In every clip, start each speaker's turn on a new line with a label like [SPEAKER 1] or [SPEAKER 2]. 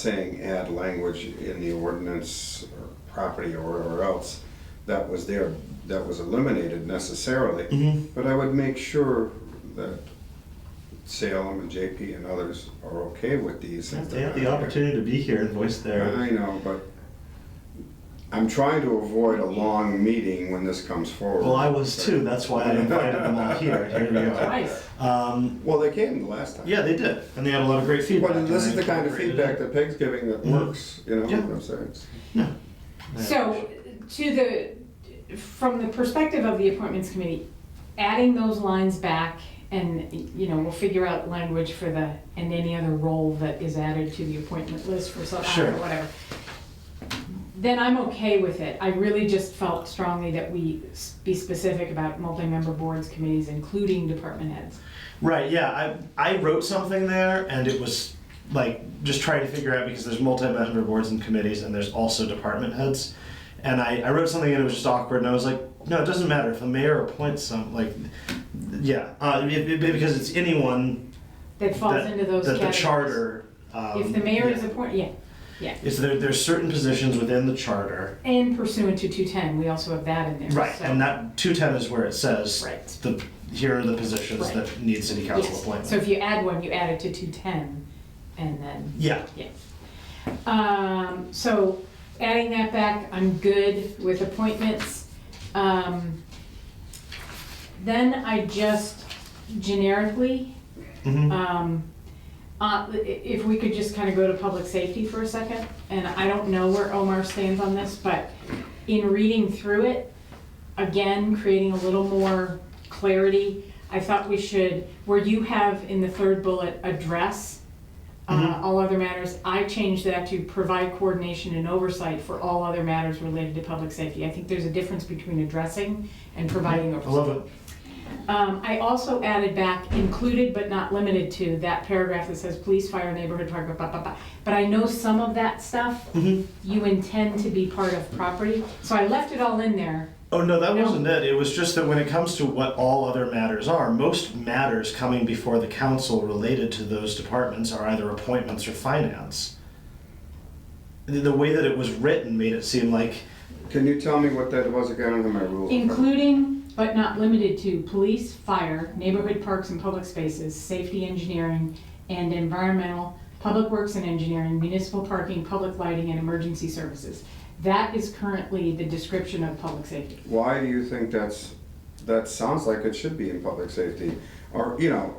[SPEAKER 1] saying add language in the ordinance or property or, or else, that was there, that was eliminated necessarily.
[SPEAKER 2] Mm-hmm.
[SPEAKER 1] But I would make sure that Salem and JP and others are okay with these. if
[SPEAKER 2] They
[SPEAKER 1] they're
[SPEAKER 2] have the
[SPEAKER 1] not here.
[SPEAKER 2] opportunity to be here and voice their.
[SPEAKER 1] I know, but I'm trying to avoid a long meeting when this comes forward.
[SPEAKER 2] Well, I was too. That's why I invited them all here. Here we are.
[SPEAKER 3] Nice.
[SPEAKER 2] Um,
[SPEAKER 1] Well, they came the last time.
[SPEAKER 2] yeah, they did, and they had a lot of great feedback.
[SPEAKER 1] But this
[SPEAKER 2] and
[SPEAKER 1] is
[SPEAKER 2] they
[SPEAKER 1] the kind of
[SPEAKER 2] incorporated
[SPEAKER 1] feedback
[SPEAKER 2] it.
[SPEAKER 1] that Peg's giving that
[SPEAKER 2] Mhm.
[SPEAKER 1] works, you know what
[SPEAKER 2] Yeah.
[SPEAKER 1] I'm saying?
[SPEAKER 2] No. Yeah.
[SPEAKER 3] So, to the, from the perspective of the appointments committee, adding those lines back and, you know, we'll figure out language for the, and any other role that is added to the appointment list for some, I
[SPEAKER 2] Sure.
[SPEAKER 3] don't know, whatever. Then I'm okay with it. I really just felt strongly that we s- be specific about multi-member boards, committees, including department heads.
[SPEAKER 2] Right, yeah, I, I wrote something there and it was like just trying to figure out because there's multi-member boards and committees and there's also department heads. And I, I wrote something and it was just awkward and I was like, no, it doesn't matter if the mayor appoints some, like, yeah, uh, be- be- because it's anyone
[SPEAKER 3] That falls
[SPEAKER 2] that,
[SPEAKER 3] into those
[SPEAKER 2] that the
[SPEAKER 3] categories.
[SPEAKER 2] charter. um,
[SPEAKER 3] If the mayor is
[SPEAKER 2] yeah.
[SPEAKER 3] appointed, yeah,
[SPEAKER 2] It's there, there's certain positions within the charter.
[SPEAKER 3] and pursuant to 210, we also have that in there.
[SPEAKER 2] Right,
[SPEAKER 3] so-
[SPEAKER 2] and that two ten is where it says
[SPEAKER 3] Right.
[SPEAKER 2] the here are the positions
[SPEAKER 3] Right.
[SPEAKER 2] that need city council
[SPEAKER 3] Yes.
[SPEAKER 2] appointment.
[SPEAKER 3] So if you add one, you add it to two ten, and then,
[SPEAKER 2] yeah,
[SPEAKER 3] yeah. Um, so adding that back, I'm good with appointments. Um, then I just generically,
[SPEAKER 2] mhm.
[SPEAKER 3] um, uh, i- if we could just kind of go to public safety for a second, and I don't know where Omar stands on this, but in reading through it, again, creating a little more clarity, I thought we should, where you have in the third bullet, address uh,
[SPEAKER 2] Mhm.
[SPEAKER 3] all other matters, I changed that to provide coordination and oversight for all other matters related to public safety. I think there's a difference between addressing and providing
[SPEAKER 2] I
[SPEAKER 3] oversight.
[SPEAKER 2] love it.
[SPEAKER 3] Um, I also added back, included but not limited to, that paragraph that says police, fire, neighborhood, park, blah, blah, blah. blah. But I know some of that stuff
[SPEAKER 2] Mhm.
[SPEAKER 3] you intend to be part of property, so I left it all in there.
[SPEAKER 2] Oh no, that
[SPEAKER 3] No.
[SPEAKER 2] wasn't it. It was just that when it comes to what all other matters are, most matters coming before the council related to those departments are either appointments or finance. The, the way that it was written made it seem like
[SPEAKER 1] Can you tell me what that was again under my rules?
[SPEAKER 3] Including but not limited to police, fire, neighborhood parks and public spaces, safety engineering and environmental, public works and engineering, municipal parking, public lighting and emergency services. That is currently the description of public safety.
[SPEAKER 1] Why do you think that's, that sounds like it should be in public safety? Or, you know,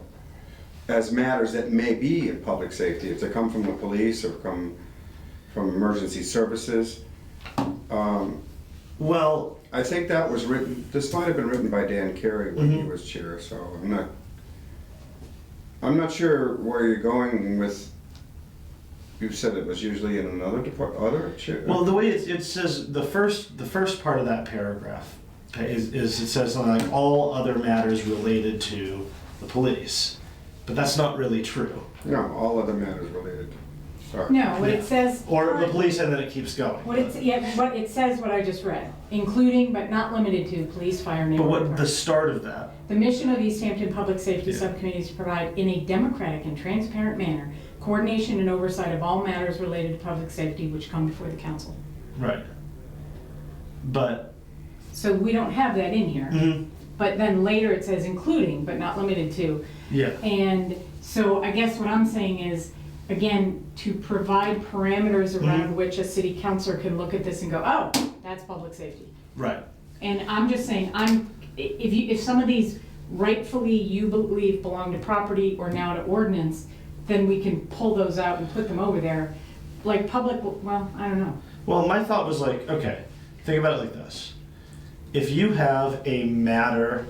[SPEAKER 1] as matters that may be in public safety, if they come from the police or come from emergency services. Um,
[SPEAKER 2] well,
[SPEAKER 1] I think that was written, this might have been written by Dan Carey when he
[SPEAKER 2] Mhm.
[SPEAKER 1] was chair, so I'm not, I'm not sure where you're going with, you said it was usually in another depart, other chair?
[SPEAKER 2] well the way it, it says the first the first part of that paragraph is, is it says something like all other matters related to the police, but that's not really true.
[SPEAKER 1] No, all other matters related, sorry.
[SPEAKER 3] No, what it says.
[SPEAKER 2] Or the police, and then it keeps going.
[SPEAKER 3] What it's, yeah, what it says, what I just read, including but not limited to police, fire,
[SPEAKER 2] but
[SPEAKER 3] neighborhood.
[SPEAKER 2] what the
[SPEAKER 3] parks.
[SPEAKER 2] start of that
[SPEAKER 3] The mission of East Hampton Public Safety
[SPEAKER 2] Yeah.
[SPEAKER 3] Subcommittee is to provide in a democratic and transparent manner coordination and oversight of all matters related to public safety which come before the council.
[SPEAKER 2] Right. But
[SPEAKER 3] So we don't have that in
[SPEAKER 2] Mm-hmm.
[SPEAKER 3] here, but then later it says including but not limited to.
[SPEAKER 2] yeah,
[SPEAKER 3] And so I guess what I'm saying is, again, to provide parameters around
[SPEAKER 2] Mm-hmm.
[SPEAKER 3] which a city councilor can look at this and go, oh, that's public safety.
[SPEAKER 2] right.
[SPEAKER 3] And I'm just saying, I'm, i- if you, if some of these rightfully you believe belong to property or now to ordinance, then we can pull those out and put them over there. Like public, well, I don't know.
[SPEAKER 2] Well, my thought was like, okay, think about it like this. If you have a matter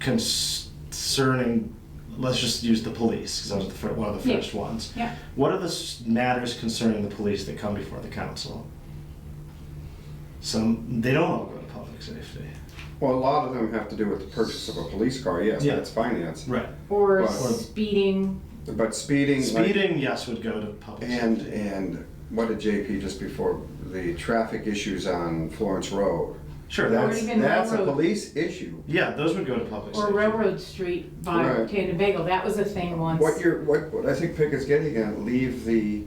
[SPEAKER 2] concerning, let's just use the police, because that was the fir- one of the
[SPEAKER 3] Yeah.
[SPEAKER 2] first ones.
[SPEAKER 3] Yeah.
[SPEAKER 2] What are the s- matters concerning the police that come before the council? Some, they don't all go to public safety.
[SPEAKER 1] Well, a lot of them have to do with the purchase of a police car, yes,
[SPEAKER 2] Yeah.
[SPEAKER 1] that's finance.
[SPEAKER 2] Right.
[SPEAKER 3] Or
[SPEAKER 1] Right.
[SPEAKER 3] speeding,
[SPEAKER 1] But speeding, like-
[SPEAKER 2] Speeding, yes, would go to public
[SPEAKER 1] and,
[SPEAKER 2] safety.
[SPEAKER 1] and what did JP just before, the traffic issues on Florence Road?
[SPEAKER 2] Sure, that
[SPEAKER 1] That's,
[SPEAKER 2] would,
[SPEAKER 3] even
[SPEAKER 1] that's a
[SPEAKER 3] railroad.
[SPEAKER 1] police issue.
[SPEAKER 2] yeah, those would go to public
[SPEAKER 3] Or
[SPEAKER 2] safety.
[SPEAKER 3] Railroad Street by
[SPEAKER 1] Right.
[SPEAKER 3] Tandabagel, that was a thing once.
[SPEAKER 1] What you're, what, what I think Pick is getting at, leave the